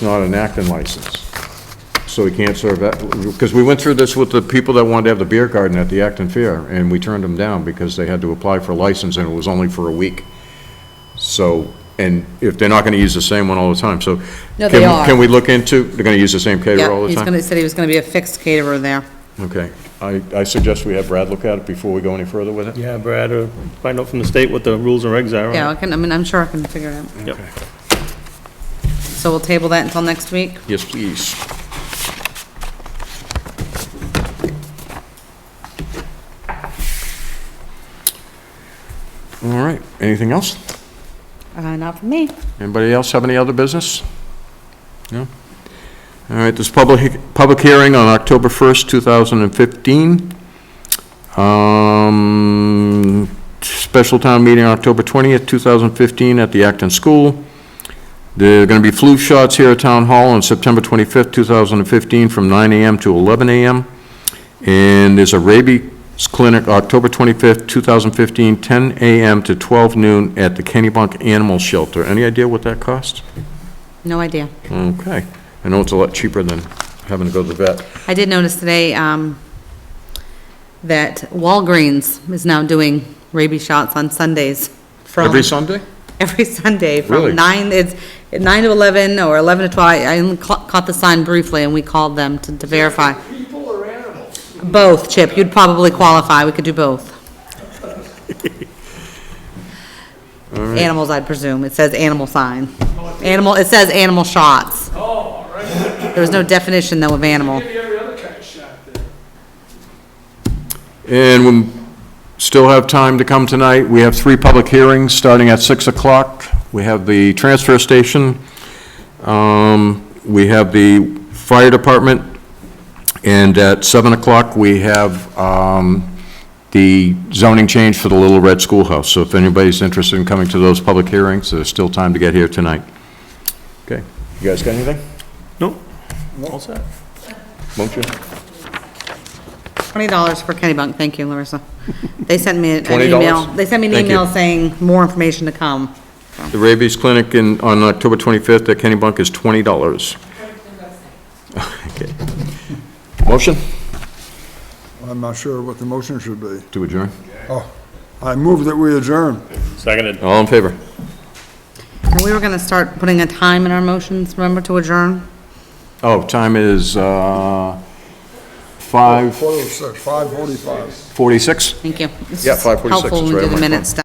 not an Acton license. So we can't serve that, because we went through this with the people that wanted to have the beer garden at the Acton Fair, and we turned them down because they had to apply for a license, and it was only for a week. So, and if they're not gonna use the same one all the time, so. No, they can- are. Can we look into, they're gonna use the same caterer all Yeah, the he's time? gonna, he said he was gonna be a fixed caterer there. Okay, I, I suggest we have Brad look at it before we go any further with it. Yeah, Brad, or find out from the state what the rules and regs are. on it. Yeah, I can, I mean, I'm sure I can figure it out. Yep. So we'll table that until next week? Yes, please. All right, anything else? Uh, not for me. Anybody else have any other business? No? All right, this public, public hearing on October 1st, 2015. Um, Special town meeting on October 20th, 2015 at the Acton School. There are going to be flu shots here at Town Hall on September 25th, 2015, from 9 a.m. to 11 a.m. And there's a rabies clinic, October 25th, 2015, 10 a.m. to 12 noon at the Kennybunk Animal Shelter. Any idea what that costs? No idea. Okay. I know it's a lot cheaper than having to go to the vet. I did notice today, um, that Walgreens is now doing rabies shots on Sundays from. Every Sunday? every Sunday Really? from nine, it's nine to 11 or 11 to 12. I only ca- caught the sign briefly and we called them to to verify. People or animals? Both, Chip. You'd probably qualify. We could do both. Animals, I'd presume. It says animal sign. Animal, it says animal shots. Oh, all right. There was no definition though of animal. Give you every other kind of shot there. And we still have time to come tonight. We have three public hearings, starting at 6 o'clock. We have the transfer station, um, we have the fire department, and at 7 o'clock, we have um, the zoning change for the Little Red Schoolhouse. So if anybody's interested in coming to those public hearings, there's still time to get here tonight. Okay. You guys got anything? Nope. All set. Motion? $20 for Kennybunk. Thank you, Larissa. They sent me an $20? email. They sent me an Thank you. email saying more information to come. The rabies clinic in, on October 25th at Kennybunk is $20. Okay. Motion? I'm not sure what the motion should be. To adjourn. I move that we adjourn. Seconded. All in favor? And we were gonna start putting a time in our motions, remember, to adjourn? Oh, time is, uh, 5:46? Quarter to six, 5:45. Thank you. Yeah, 5:46 is Helpful when right we on do my the phone. minutes.